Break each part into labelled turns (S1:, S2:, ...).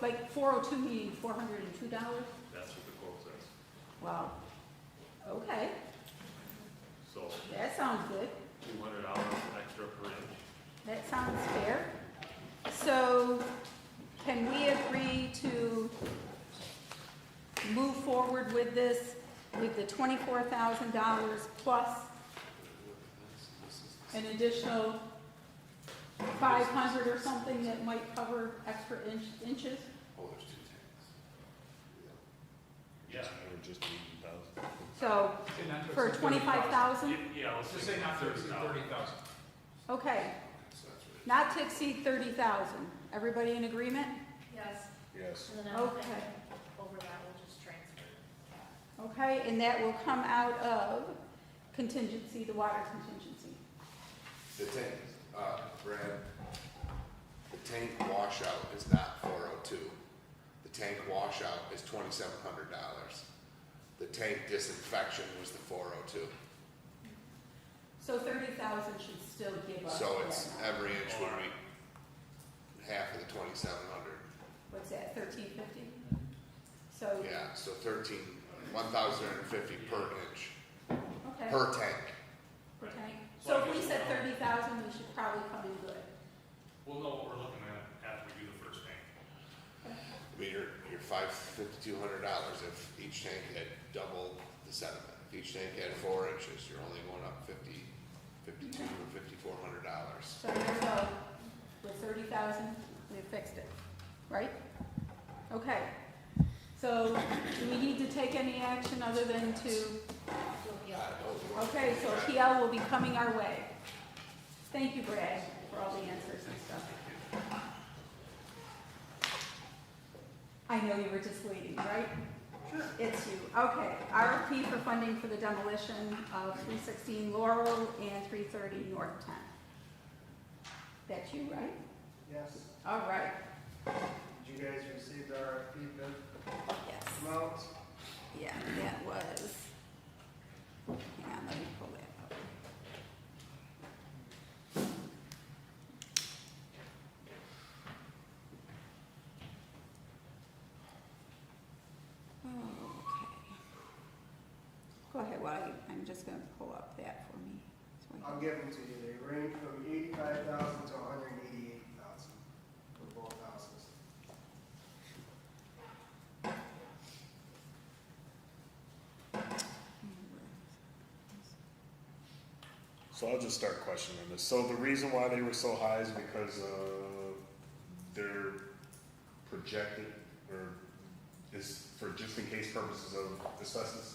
S1: Like four oh two, meaning four hundred and two dollars?
S2: That's what the quote says.
S1: Wow. Okay,
S2: So
S1: that sounds good.
S2: two hundred dollars extra per inch.
S1: That sounds fair. So can we agree to move forward with this, with the twenty-four thousand dollars plus an additional five hundred or something that might cover extra inch, inches?
S3: Oh, there's two tanks.
S2: Yeah.
S3: just eighty thousand.
S1: So
S4: Say not to
S1: for
S4: exceed
S1: twenty-five
S4: 30,000.
S1: thousand?
S2: If- Yeah, let's
S4: Just
S2: say
S4: say not to
S2: thirty
S4: exceed
S2: dollars.
S4: thirty thousand.
S1: Okay,
S3: So that's right.
S1: not to exceed thirty thousand. Everybody in agreement?
S5: Yes,
S3: Yes.
S5: and then I'll
S1: Okay.
S5: over that, we'll just transfer.
S1: Okay, and that will come out of contingency, the water contingency.
S3: The tank, uh, Brad, the tank washout is not four oh two. The tank washout is twenty-seven hundred dollars. The tank disinfection was the four oh two.
S1: So thirty thousand should still give us.
S3: So
S1: that
S3: it's
S1: amount.
S3: every inch would be half of the twenty-seven hundred.
S1: What's that, thirteen fifty? So,
S3: Yeah, so thirteen, one thousand and fifty per inch,
S1: okay,
S3: per tank.
S1: okay.
S2: Well,
S1: So
S2: I
S1: if we
S2: guess
S1: said
S2: we'll-
S1: thirty thousand, we should probably come in good.
S2: We'll know what we're looking at after we do the first tank.
S3: I mean, you're, you're five, fifty-two hundred dollars if each tank had double the sediment. If each tank had four inches, you're only going up fifty, fifty-two or fifty-four hundred dollars.
S1: So there's a, with thirty thousand, we fixed it, right? Okay. So do we need to take any action other than to, okay, so PL will be coming our way. Thank you, Brad, for all the answers and stuff. I know you were just waiting, right? Sure. It's you. Okay, RFP for funding for the demolition of three sixteen Laurel and three thirty North Tenth. That's you, right?
S6: Yes,
S1: All right,
S6: did you guys receive the RFP bid
S1: yes,
S6: amount?
S1: yeah, that was, hang on, let me pull that up. Okay. Go ahead, well, I- I'm just gonna pull up that for me. so I can-
S6: I'll give them to you, they range from eighty-five thousand to hundred and eighty-eight thousand for both houses.
S7: So I'll just start questioning this. So the reason why they were so high is because uh, they're projected, or is for just in case purposes of asbestos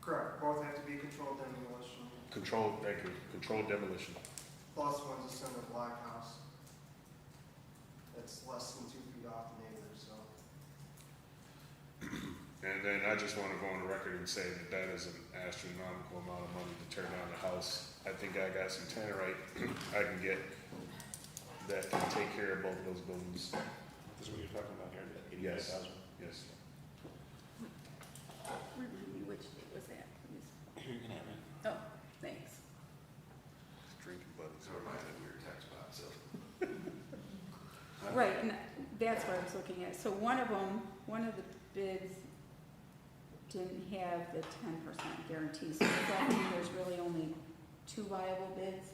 S6: Correct, both have to be controlled demolition,
S7: controlled, thank you, controlled demolition.
S6: plus one's a semi block house. That's less than two feet off the neighbor, so.
S7: And then I just want to go on the record and say that that is an astronomical amount of money to turn down a house. I think I got some tannerite I can get that can take care of both of those buildings.
S3: This is what you're talking about here, the
S7: Yes. Yes.
S1: Remind me which date was that, please? Oh, thanks.
S7: Drinking buddies.
S3: So it reminds me of your text box, so.
S1: Right, and that's what I was looking at. So one of them, one of the bids didn't have the ten percent guarantee, so does that mean there's really only two viable bids?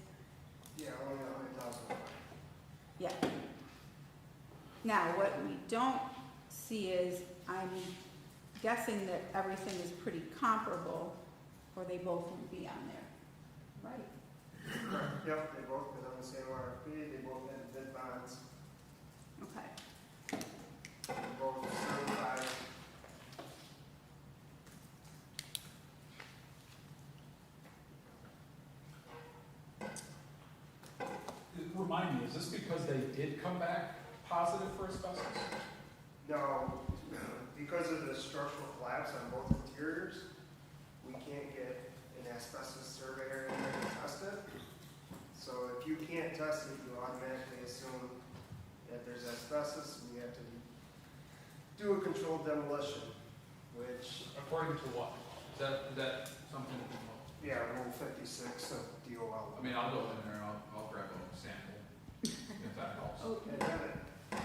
S6: Yeah, only a hundred thousand.
S1: Yeah. Now, what we don't see is, I'm guessing that everything is pretty comparable, or they both would be on there, right?
S6: Yep, they both bid on the same RFP, they both had bid bonds,
S1: Okay.
S6: they both certified.
S4: Remind me, is this because they did come back positive for asbestos?
S6: No, because of the structural collapse on both interiors, we can't get an asbestos surveyor in there to test it. So if you can't test it, you automatically assume that there's asbestos, and you have to do a controlled demolition, which,
S4: According to what? Is that, is that something, that we-
S6: yeah, Rule fifty-six of DOL.
S4: I mean, I'll go in there and I'll, I'll grab a sample, if that helps.
S1: Okay.
S6: And then it-